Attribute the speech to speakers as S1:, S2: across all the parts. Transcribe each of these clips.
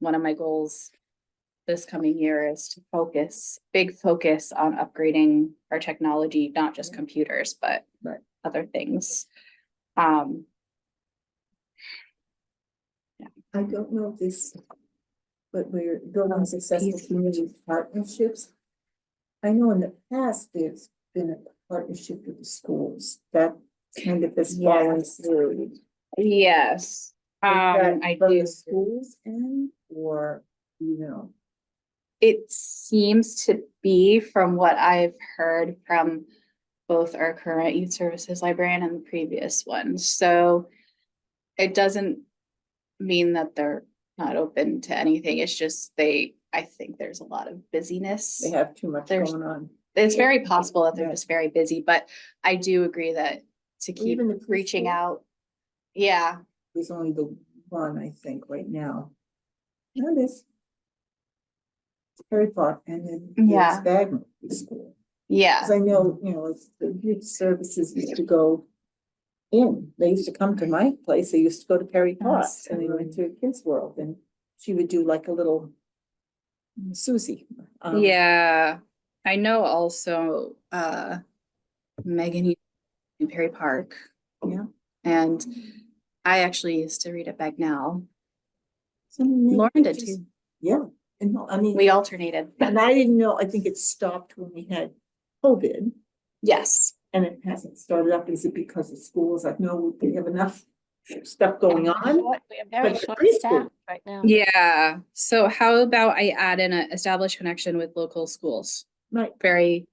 S1: one of my goals this coming year is to focus, big focus on upgrading our technology, not
S2: Mm-hmm.
S1: just computers, but
S3: Right.
S1: other things. Um,
S2: I don't know if this, but we're building successful
S1: Easy.
S2: community partnerships. I know in the past, there's been a partnership with the schools that kind of has fallen
S1: Yes.
S2: through. Is
S1: yes, um,
S2: that
S1: I
S2: From
S1: do.
S2: the schools end or, you know,
S1: It seems to be from what I've heard from both our current youth services librarian and the previous one, so. It doesn't mean that they're not open to anything, it's just they, I think there's a lot of busyness.
S2: they have too much
S1: There's-
S2: going on.
S1: It's very possible that they're
S2: Yeah.
S1: just very busy, but I do agree that to keep
S2: Even the preschool?
S1: reaching out. Yeah,
S2: There's only the one, I think, right now. Now there's Harry Potter and then there's
S1: Yeah.
S2: Bagnell School.
S1: yeah,
S2: Cause I know, you know, it's- the youth services used to go in, they used to come to my place, they used to go to Perry Park,
S1: Yes.
S2: and they went to Kids World, and she would do like a little Susie. um,
S1: yeah. I know also, uh, Megan in Perry Park.
S2: Yeah.
S1: And I actually used to read at Bagnell.
S2: so maybe
S1: Lauren did
S2: just-
S1: too.
S2: Yeah, and no, I mean,
S1: We alternated.
S2: and I didn't know, I think it stopped when we had COVID,
S1: Yes,
S2: and it hasn't started up, is it because of schools, like, no, we have enough stuff going on?
S4: What- We are very
S2: But the
S4: short
S2: preschool-
S4: staffed right now.
S1: yeah. So how about I add in a established connection with local schools?
S2: Right,
S1: Very,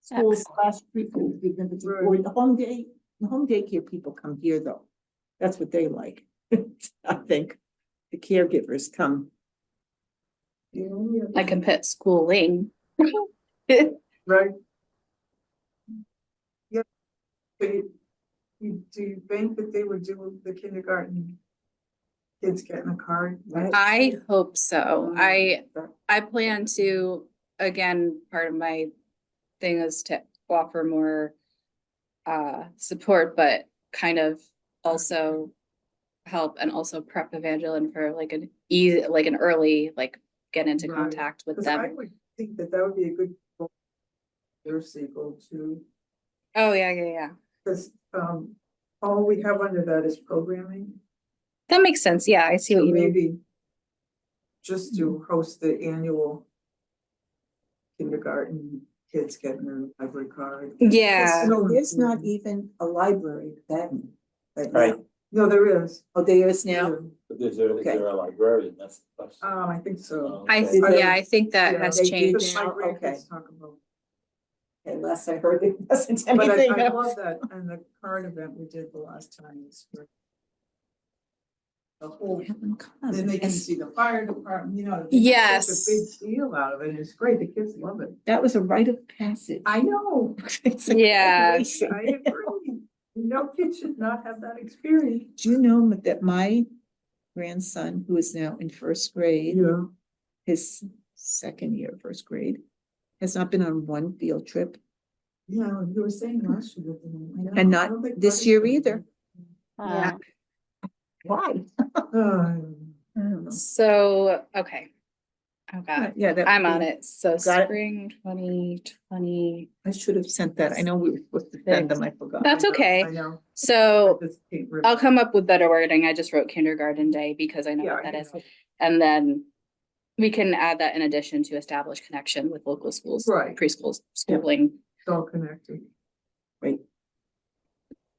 S2: schools slash preschool, give them the, or the home day, the home daycare people come here though. That's what they like, I think, the caregivers come.
S1: I can put schooling.
S5: Right. Yep. But you, you, do you think that they would do the kindergarten? Kids getting a card?
S2: Right.
S1: I hope so. Oh, I,
S2: But
S1: I plan to, again, part of my thing is to offer more uh, support, but kind of also help and also prep Evangeline for like an easy, like an early, like get into
S5: Right.
S1: contact with
S5: Cause I
S1: them.
S5: would think that that would be a good. goal. Their sequel to,
S1: Oh, yeah, yeah, yeah.
S5: cause, um, all we have under that is programming.
S1: That makes sense. Yeah, I see
S5: So
S1: what you mean. Mm-hmm.
S5: maybe just to host the annual kindergarten kids getting a library card.
S1: Yeah,
S5: no-
S2: There's not even a library then.
S6: Right.
S5: No, there is.
S2: Oh, there is now,
S6: But Is there, is
S2: Okay.
S6: there a librarian? That's the question.
S5: Um, I think so.
S1: I,
S6: Okay.
S1: th- yeah, I think that
S5: Yeah,
S1: has
S2: they do
S1: changed.
S5: Because my
S2: now,
S5: grandkids talk about.
S2: unless I heard it wasn't
S5: But I,
S2: anything
S5: I
S2: else.
S5: love that, and the card event we did the last time is where. The whole, then they can see the fire department, you know.
S1: Yes.
S5: It's a big deal out of it, and it's great, the kids love it.
S2: That was a rite of passage.
S5: I know,
S2: It's a
S1: Yeah.
S5: I
S2: graduation.
S5: agree, no kid should not have that experience.
S2: Do you know ma- that my grandson, who is now in first grade,
S5: Yeah.
S2: his second year of first grade, has not been on one field trip
S5: Yeah, you were saying last year. that they went, I know,
S2: And
S5: I
S2: not
S5: don't think
S2: this
S5: parties
S2: year
S5: are-
S2: either.
S4: Uh,
S2: Why?
S5: Um,
S1: So, okay. Oh, God.
S2: Yeah, that.
S1: I'm
S2: would
S1: on
S2: be-
S1: it, so
S2: Got it.
S1: spring twenty twenty,
S2: I should have sent that. I know we were supposed to send them. I forgot.
S1: That's
S5: I know,
S1: okay.
S5: I know.
S1: so
S5: This came from-
S1: I'll come up with better wording, I just wrote kindergarten day because I know
S5: Yeah,
S1: what that
S5: you
S1: is.
S5: know.
S1: And then we can add that in addition to establish connection with local schools,
S5: Right, it's
S1: preschools, schooling.
S5: all connected.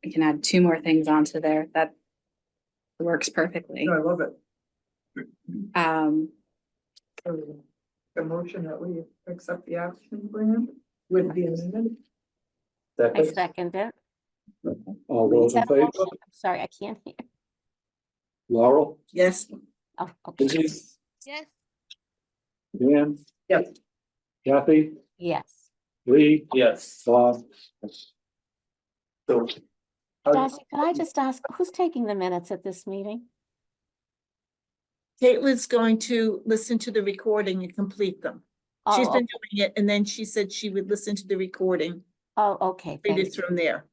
S1: We can add two more things onto there, that works perfectly,
S5: No, I love it.
S1: um,
S5: So, The motion that we accept the action plan with the amendment.
S4: I
S6: Second,
S4: second it.
S6: all those
S4: Is
S6: in
S4: that a
S6: favor?
S4: motion? I'm Sorry, I can't hear.
S6: Laurel,
S2: Yes,
S4: Oh, okay.
S6: Denise,
S4: Yes.
S6: Dan?
S5: Yes.
S6: Kathy,
S4: Yes.
S6: Lee? Yes. Bob? So. I-
S4: Darcy, could I just ask, who's taking the minutes at this meeting?
S2: Caitlin's going to listen to the recording and complete them. She's
S4: Oh,
S2: been doing it and then she said she would listen to the recording,
S4: oh, okay,
S2: read it
S4: thank you.
S2: from there.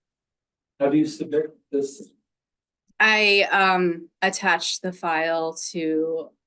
S6: Have you submitted this?
S1: I um attached the file to